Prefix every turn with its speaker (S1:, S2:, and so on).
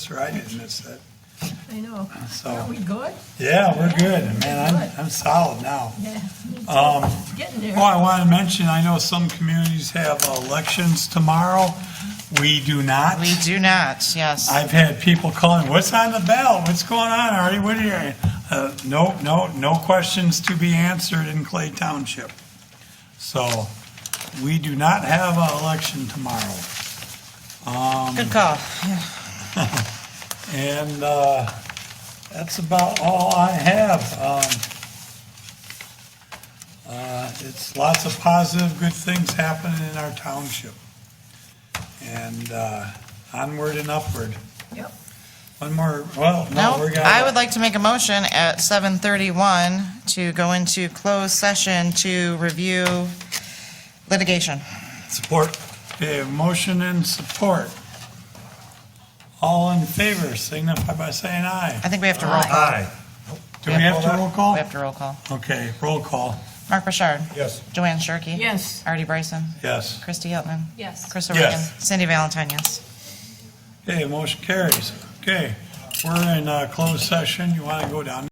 S1: That's right, isn't it, Sid?
S2: I know.
S1: So-
S2: Are we good?
S1: Yeah, we're good. Man,
S2: Good.
S1: I'm, I'm solid now.
S2: Yeah,
S1: Um,
S2: getting there.
S1: Oh, I want to mention, I know some communities have elections tomorrow. We do not.
S3: We do not, yes.
S1: I've had people calling, what's on the ballot? What's going on, Artie? What are you? Uh, no, no, no questions to be answered in Clay Township. So we do not have an election tomorrow.
S3: Good call.
S1: And uh, that's about all I have. Um, uh, It's lots of positive, good things happening in our township. And uh, onward and upward.
S2: Yep.
S1: One more, well, no,
S3: No,
S1: we're gonna.
S3: I would like to make a motion at 7:31 to go into closed session to review litigation.
S1: Support. Okay, motion and support. All in favor, signify by saying aye.
S3: I think we have to roll call.
S1: Do we have to roll call?
S3: We have to roll call.
S1: Okay, roll call,
S3: Mark Bouchard.
S4: Yes.
S3: Joanne Shirkey.
S2: Yes.
S3: Artie Bryson.
S1: yes.
S3: Christy Hilton.
S2: Yes.
S3: Chris
S1: Yes.
S3: O'Regan. Cindy Valentine, yes.
S1: Okay, motion carries. Okay, we're in uh, closed session. You want to go down?